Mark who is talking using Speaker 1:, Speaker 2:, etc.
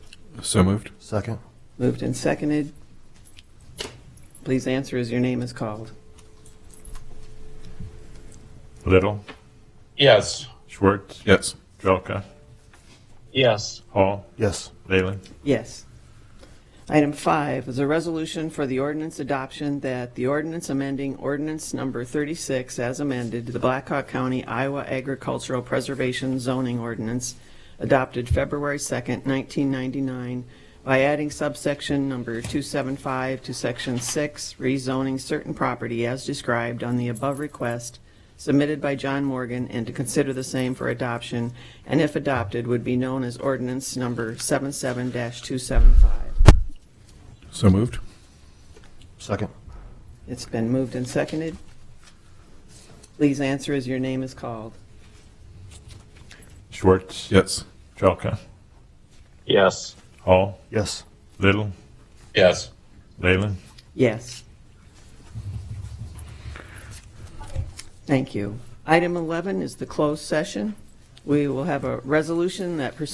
Speaker 1: So moved.
Speaker 2: Second.
Speaker 3: Moved and seconded. Please answer as your name is called.
Speaker 4: Little,
Speaker 5: Yes.
Speaker 4: Schwartz,
Speaker 1: Yes.
Speaker 4: Jelka,
Speaker 5: Yes.
Speaker 4: Hall,
Speaker 2: Yes.
Speaker 4: Leyland.
Speaker 3: Yes. Item five is a resolution for the ordinance adoption that the ordinance amending ordinance number 36 as amended, the Blackhawk County Iowa Agricultural Preservation Zoning Ordinance adopted February 2nd, 1999, by adding subsection number 275 to section 6, rezoning certain property as described on the above request submitted by John Morgan and to consider the same for adoption, and if adopted, would be known as ordinance number 77-275.
Speaker 1: So moved.
Speaker 2: Second.
Speaker 3: It's been moved and seconded. Please answer as your name is called.
Speaker 4: Schwartz,
Speaker 1: Yes.
Speaker 4: Jelka,
Speaker 5: Yes.
Speaker 4: Hall,
Speaker 2: Yes.
Speaker 4: Little,
Speaker 5: Yes.
Speaker 4: Leyland.
Speaker 3: Yes. Thank you. Item 11 is the closed session. We will have a resolution that pursuant